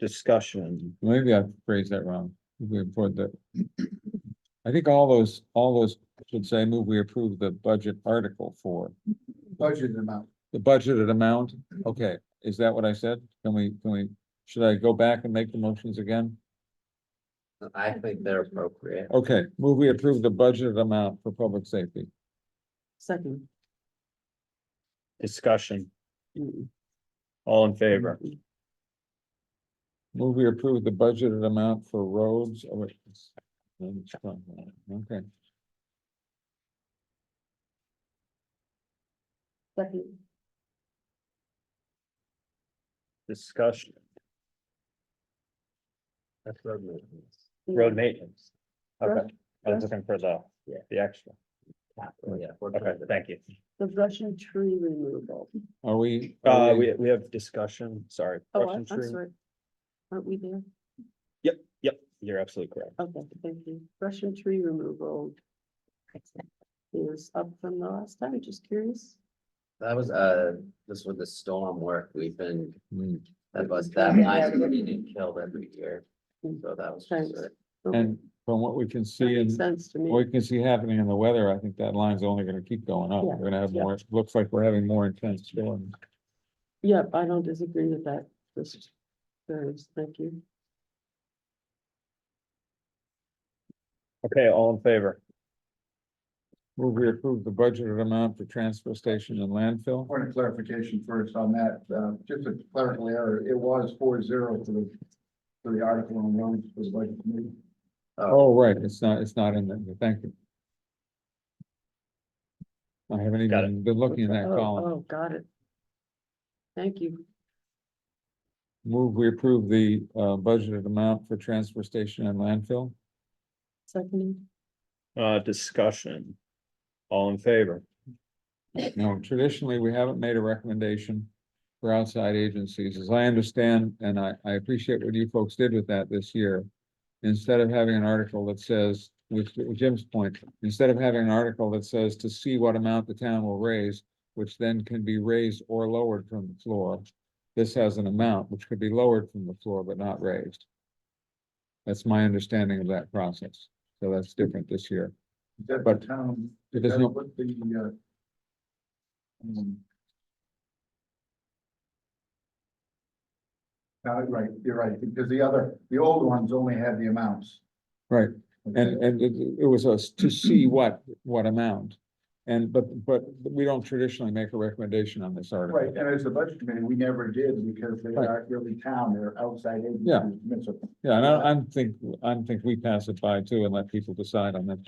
discussion. maybe I phrased that wrong. We approved the. I think all those, all those should say move we approve the budget article for budgeted amount. the budgeted amount. Okay, is that what I said? Can we, can we, should I go back and make the motions again? I think they're appropriate. Okay, move we approve the budgeted amount for public safety. Second. Discussion, Mm. all in favor? Move we approve the budgeted amount for roads. Oh, wait, it's- no, it's not that. Okay, Second. Discussion. That's road maintenance. Road maintenance. Okay, I was looking for the, the extra. Yeah. Okay, thank you. The Russian tree removal. are we? are Uh, we, we have discussion, sorry. Oh, I- Russian I'm tree- sorry. Aren't we there? Yep, you're absolutely correct. Okay, thank you. Russian tree removal is up from the last time, just curious. That was, uh, this was the storm work we've been, Hmm. that was that Yeah. line that we didn't kill every year. So that was just Thanks. it. Okay, And from what we can that see makes in, Sense to what me. we can see happening in the weather, I think that line's only gonna keep going up. Yeah, We're gonna have yeah. more, looks like we're having more intense storms. Yep, I don't disagree with that. Just, curious. thank you. Okay, all in favor? Move we approve the budgeted amount for transfer station and landfill. Point of clarification first on that, uh, just a clerical error, it was four zero for the, for the article on roads for the budget committee. Uh, Oh, right, it's not, it's not in there, thank you. I haven't Got it. even been looking in that Oh, column. Oh, got it. Thank you. Move we approve the uh budgeted amount for transfer station and landfill. Second, Uh, discussion. All in favor? Now, traditionally, we haven't made a recommendation for outside agencies, as I understand, and I I appreciate what you folks did with that this year. Instead of having an article that says, which to Jim's point, instead of having an article that says to see what amount the town will raise, which then can be raised or lowered from the floor. This has an amount which could be lowered from the floor but not raised. That's my understanding of that process, so that's different this year. Is that But the town, It is is that not, what the, uh, um, no, uh, right, you're right, because the other, the old ones only had the amounts. right, And, and it, it was us to see what, what amount. And, but, but we don't traditionally make a recommendation on this Right, article. and as the budget committee, we never did because they Right. aren't really town, they're outside Yeah. agencies. Yeah. Yeah, and I, I think, I think we pass it by too and let people decide on that.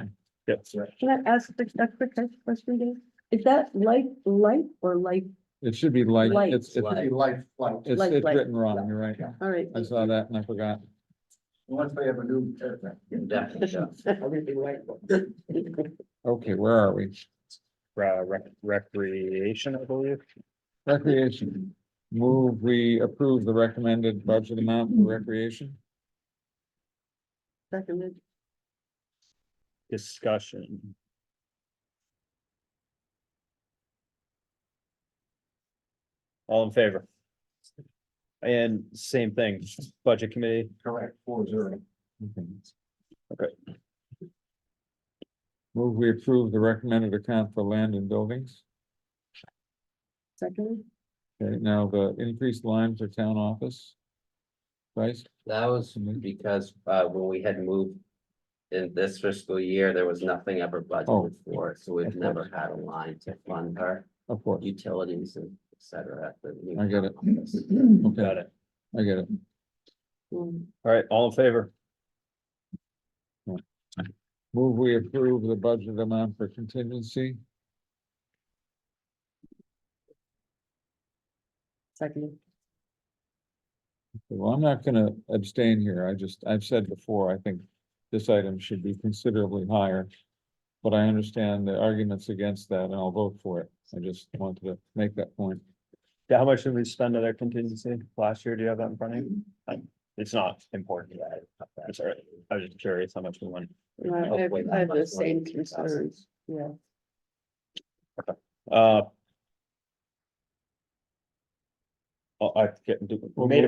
Yep. can I ask a a quick question, Dave? Is that light, light or light? It should be like, Light. it's, it's, Light. Pretty life flight, it's Like, it's like, written wrong, you're right. All right. I saw that and I forgot. unless they have a new. uh, Definitely, yeah. Everything like. Okay, where are we? Uh, rec- recreation, I believe. Recreation. Move, we approve the recommended budget amount for recreation. Seconded, Discussion. All in favor? And same thing, budget committee, Correct, four zero. Okay. Okay. Move, we approve the recommended account for land and buildings. seconded, Okay, now the increased line for town office. Price, That was because, uh, when we had moved in this fiscal year, there was nothing ever Oh. budgeted for, so Of we've course. never had a line to fund our of course, utilities and et cetera. at the new I get it. office. okay, got it. I get it. um, All right, all in favor? Move, we approve the budget amount for contingency, seconded, well, I'm not gonna abstain here, I just, I've said before, I think. This item should be considerably higher, but I understand the arguments against that and I'll vote for it, I just wanted to make that point. Yeah, how much did we spend on our contingency last year? Do you have that in front of you? I- It's not important. I'm sorry. I was just curious how much we went. I I have Oh, wait, I have the that's one. same concerns, yeah. Uh. oh, I get, we made a